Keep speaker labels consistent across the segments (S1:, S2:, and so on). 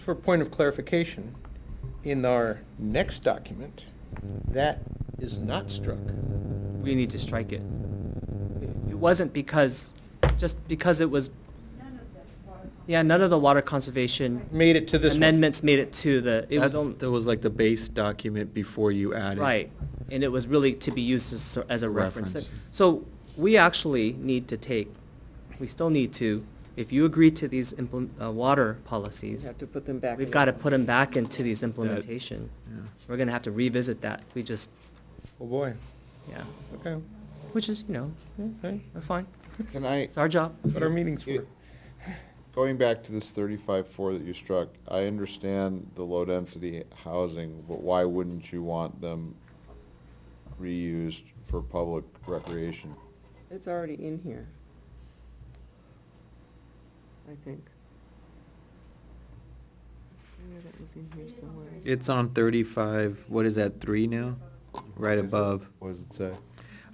S1: For point of clarification, in our next document, that is not struck.
S2: we need to strike it. It wasn't because, just because it was,
S3: None of the water.
S2: yeah, none of the water conservation
S1: Made it to this one.
S2: amendments made it to the, it was
S4: That's,
S2: only,
S4: that was like the base document before you added.
S2: right. And it was really to be used as, as a reference.
S4: Reference.
S2: So we actually need to take, we still need to, if you agree to these implement, uh, water
S5: You
S2: policies,
S5: have to put them back.
S2: we've
S5: in.
S2: got to put them back into these implementation.
S4: Yeah.
S2: We're gonna have to revisit that. We just,
S1: Oh, boy.
S2: yeah,
S1: Okay.
S2: which is, you know, yeah, we're fine.
S6: Can I,
S2: It's our job.
S1: That's what our meetings were.
S6: going back to this thirty-five four that you struck, I understand the low-density housing, but why wouldn't you want them reused for public recreation?
S5: It's already in here. I think. Yeah, that was in here somewhere.
S4: It's on thirty-five, what is that, three now? Right
S6: Is it-
S4: above.
S6: What does it say?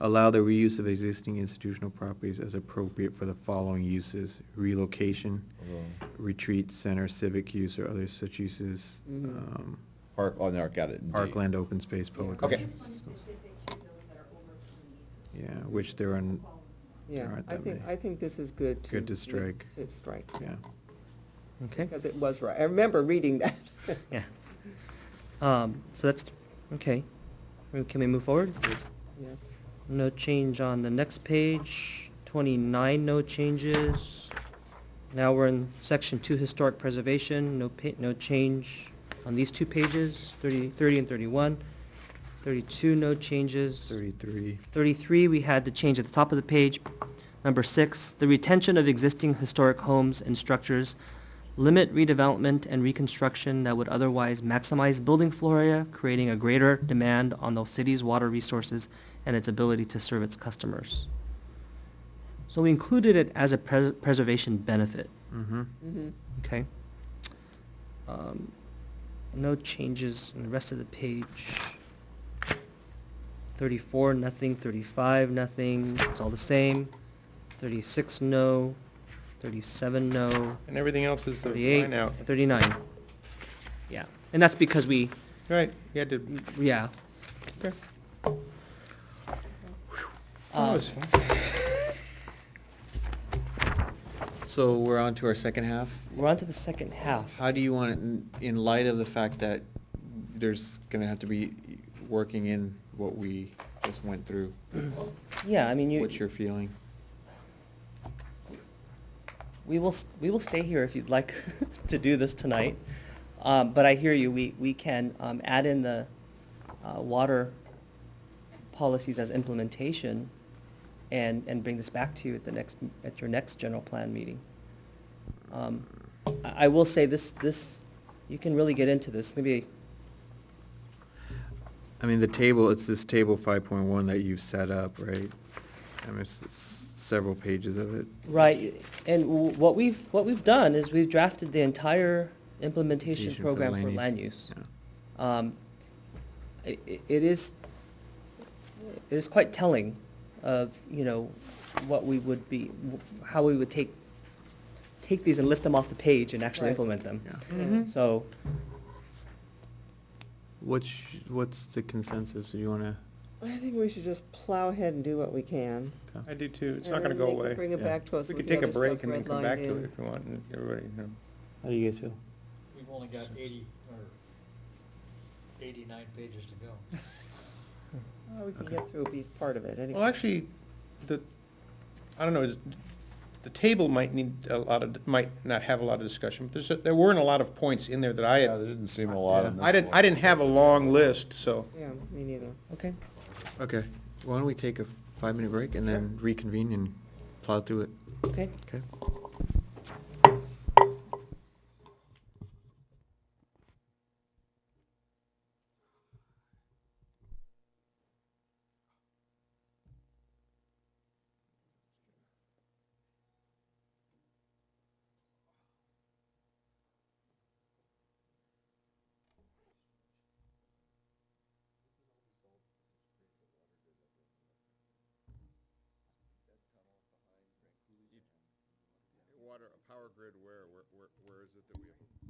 S4: Allow the reuse of existing institutional properties as appropriate for the following uses, relocation,
S6: Um,
S4: retreat center, civic use, or other such uses,
S5: Mhm.
S4: um,
S6: Park, oh, no, I got it. in D.
S4: parkland, open space, public.
S6: Okay.
S3: This
S4: resources.
S3: one is specific to those that are over twenty.
S4: Yeah, which there are, n-
S5: Yeah,
S4: Alright,
S5: I
S4: that
S5: think,
S4: may-
S5: I think this is good to.
S4: Good to
S5: re-
S4: strike.
S5: To strike,
S4: yeah.
S2: Okay.
S5: because it was right. I remember reading that.
S2: Yeah. Um, so that's, okay. Uh, Can we move forward?
S5: Yes.
S2: No change on the next page, twenty-nine, no changes. Now we're in section two, historic preservation, no pa- no change on these two pages, 30 30 and thirty-one. Thirty-two, no changes.
S4: Thirty-three,
S2: 33, we had the change at the top of the page. Number six, the retention of existing historic homes and structures, limit redevelopment and reconstruction that would otherwise maximize building flora, creating a greater demand on the city's water resources and its ability to serve its customers. So we included it as a pres- preservation benefit,
S4: mm-hmm.
S5: Mhm.
S2: okay? Um, No changes in the rest of the page. 34, nothing, 35, nothing, it's all the same. 36, no. 37, no.
S1: And everything else is the
S2: 38,
S1: line out.
S2: 39. Yeah, and that's because we,
S1: Right, you had to,
S2: yeah.
S1: okay. Oh, That
S2: um,
S1: was fun.
S4: So we're on to our second half.
S2: We're on to the second half.
S4: How do you want it, in- in light of the fact that there's gonna have to be working in what we just went through?
S2: Yeah, I mean, you.
S4: What's your feeling?
S2: We will, s- we will stay here if you'd like to do this tonight. Um, but I hear you, we, we can, um, add in the, uh, water policies as implementation and, and bring this back to you at the next, at your next general plan meeting. Um, I, I will say this, this, you can really get into this, maybe,
S4: I mean, the table, it's this table five point one that you've set up, right? I mean, it's it's several pages of it.
S2: right, and w- what we've, what we've done is we've drafted the entire implementation
S4: Presentation
S2: program for land use.
S4: Yeah.
S2: um, i- i- it is, it is quite telling of, you know, what we would be, how we would take, take these and lift them off the page and actually
S5: Right.
S2: implement them.
S4: Yeah.
S5: Mhm.
S2: So,
S4: What's, what's the consensus? Do you wanna?
S5: I think we should just plow ahead and do what we can.
S1: I do too. It's
S5: And
S1: not gonna
S5: then
S1: go
S5: they can
S1: away.
S5: Bring it
S4: Yeah.
S5: back to us
S1: We
S5: with
S1: could
S5: the
S1: take a
S5: other stuff
S1: break and then come back
S5: redlined
S1: to it
S5: in.
S1: if you want, and everybody, you know.
S4: How do you guys feel?
S7: We've only got eighty, or eighty-nine pages to go.
S5: Oh, We can
S4: Okay.
S5: get through at least part of it anyway.
S1: Well, actually, the, I don't know, is- the table might need a lot of, might not have a lot of discussion, but there's, a- there weren't a lot of points in there that I
S6: Yeah, there
S1: had.
S6: didn't seem a lot in this
S1: I didn't, I
S6: one.
S1: didn't have a long list, so.
S5: Yeah, me neither.
S2: okay,
S4: Okay, why don't we take a five-minute break and then reconvene and plow through it,
S2: okay.
S4: okay?
S6: Water, power grid, where, where, where is it that we have?